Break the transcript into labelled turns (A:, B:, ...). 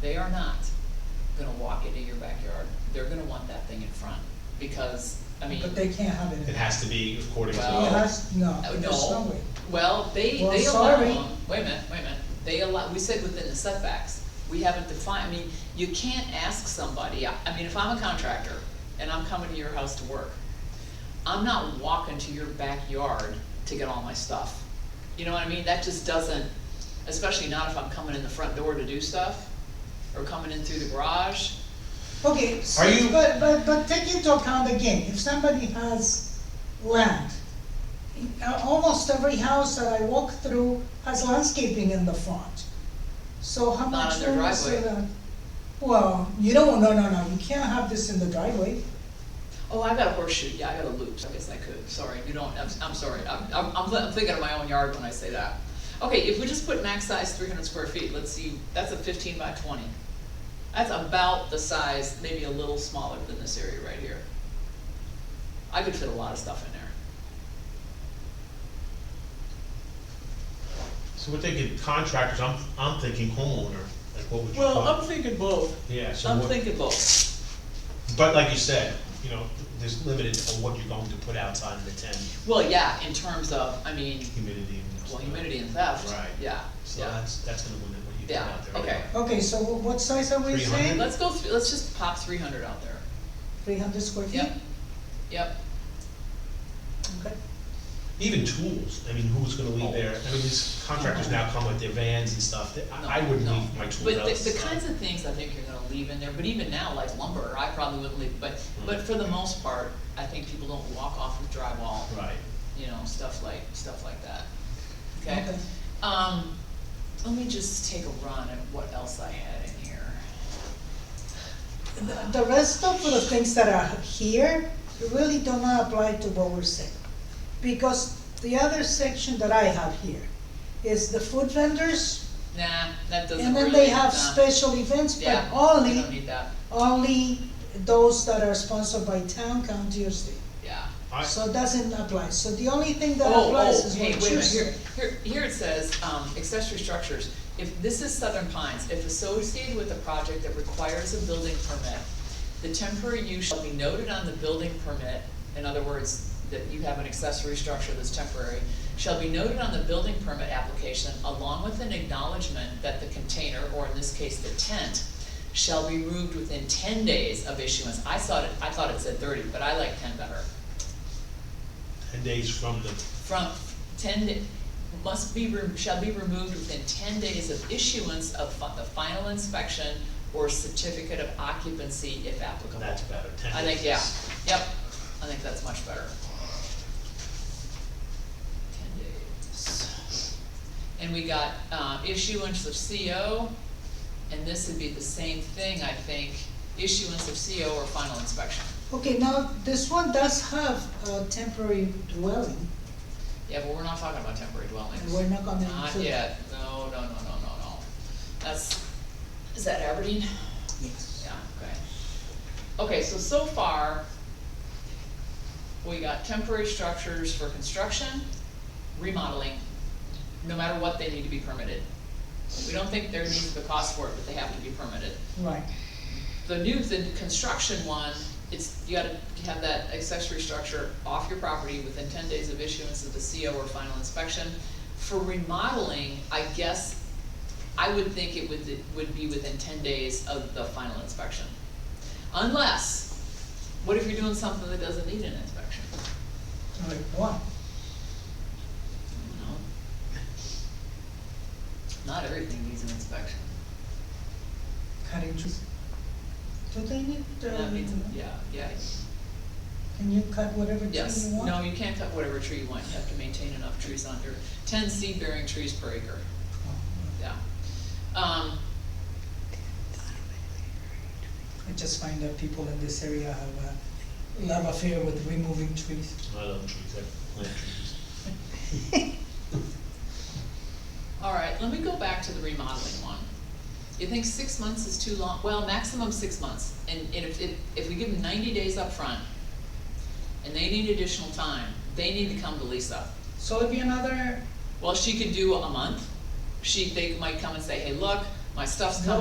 A: They are not gonna walk into your backyard. They're gonna want that thing in front, because, I mean. uh,
B: But they can't have it.
C: It has to be according to the
A: Well-
B: It
C: law.
B: has, no,
A: Uh,
B: there's no
A: No,
B: way.
A: well, they,
B: Well,
A: they allow
B: sorry.
A: them, wait a minute, wait a minute, they allow, we said within the setbacks, we haven't defined, I mean, you can't ask somebody, I, I mean, if I'm a contractor and I'm coming to your house to work, I'm not walking to your backyard to get all my stuff. You know what I mean, that just doesn't, especially not if I'm coming in the front door to do stuff, or coming in through the garage.
B: Okay, so,
C: Are you-
B: but, but, but take into account again, if somebody has land, uh, almost every house that I walk through has landscaping in the front. So how
A: Not
B: much
A: on their
B: room is
A: driveway.
B: there? Well, you don't, no, no, no, you can't have this in the driveway.
A: Oh, I got a horseshoe, yeah, I got a loop, so I guess I could, sorry, you don't, I'm, I'm sorry, I'm, I'm, I'm li- I'm thinking of my own yard when I say that. Okay, if we just put max size three hundred square feet, let's see, that's a fifteen by twenty. That's about the size, maybe a little smaller than this area right here. I could fit a lot of stuff in there.
C: So we're thinking contractors, I'm, I'm thinking homeowner, like what would you
A: Well, I'm
C: call?
A: thinking both,
C: Yeah, so
A: I'm
C: what,
A: thinking both,
C: but like you said, you know, there's limited on what you're going to put outside of the tent,
A: well, yeah, in terms of, I mean,
C: humidity and stuff.
A: well, humidity and theft,
C: Right.
A: yeah,
C: So
A: yeah.
C: that's, that's gonna limit what you put
A: Yeah,
C: out there.
A: okay.
B: Okay, so wh- what size are we
C: 300?
B: saying?
A: Let's go, thr- let's just pop three hundred out there,
B: Three hundred square feet?
A: yep, yep.
B: Okay.
C: Even tools, I mean, who's gonna leave their, I mean, these contractors now come with their vans and stuff, that-
A: No,
C: I, I wouldn't
A: no.
C: leave my tools
A: But the, the
C: outside.
A: kinds of things I think you're gonna leave in there, but even now, like lumber, I probably wouldn't leave, but,
C: Hmm.
A: but for the most part, I think people don't walk off with drywall,
C: Right,
A: you know, stuff like, stuff like that. Okay?
B: Okay.
A: Um, let me just take a run at what else I had in here.
B: The- The rest of the things that are here really do not apply to what we're saying. Because the other section that I have here is the food vendors,
A: Nah, that doesn't
B: and
A: really,
B: then they have
A: nah.
B: special events, but
A: Yeah, we don't
B: only,
A: need that,
B: only those that are sponsored by town, county, or state.
A: yeah.
C: I,
B: So it doesn't apply, so the only thing that
A: Oh,
B: applies
A: oh,
B: is
A: hey,
B: what
A: wait a
B: you
A: minute, here,
B: said.
A: here, here it says, um, accessory structures, if, this is Southern Pines, if associated with a project that requires a building permit, the temporary use shall be noted on the building permit, in other words, that you have an accessory structure that's temporary, shall be noted on the building permit application along with an acknowledgement that the container, or in this case, the tent, shall be removed within ten days of issuance, I thought it, I thought it said thirty, but I like ten better
C: ten days from the,
A: from ten, da- must be, re- shall be removed within ten days of issuance of fi- the final inspection or certificate of occupancy if applicable.
C: that's better, ten
A: I
C: days.
A: think, yeah, yep, I think that's much better. Ten days. And we got, uh, issuance of CO, and this would be the same thing, I think, issuance of CO or final inspection.
B: Okay, now, this one does have a temporary dwelling,
A: Yeah, but we're not talking about temporary dwellings.
B: and we're not gonna
A: Not
B: include.
A: yet, no, no, no, no, no, no. That's, is that Aberdeen?
B: Yes.
A: Yeah, okay. Okay, so, so far, we got temporary structures for construction, remodeling, no matter what, they need to be permitted. We don't think there needs to be a cost for it, but they have to be permitted.
B: Right,
A: The new, the construction one, it's, you gotta have that accessory structure off your property within ten days of issuance of the CO or final inspection. For remodeling, I guess, I would think it would, it would be within ten days of the final inspection. Unless, what if you're doing something that doesn't need an inspection?
B: like one.
A: You know? Not everything needs an inspection.
B: cutting trees. Do they need,
A: That means,
B: um,
A: yeah, yeah,
B: can you cut whatever tree
A: Yes,
B: you want?
A: no, you can't cut whatever tree you want, you have to maintain enough trees under, ten seed-bearing trees per acre,
B: Oh,
A: yeah. Um,
B: I just find that people in this area have a love affair with removing trees.
C: I love trees, I plant trees.
A: all right, let me go back to the remodeling one. You think six months is too long, well, maximum six months, and, and if, if, if we give them ninety days up front, and they need additional time, they need to come to Lisa.
B: So it'd be another
A: Well, she could do a month, she, they might come and say, hey, look, my stuff's coming.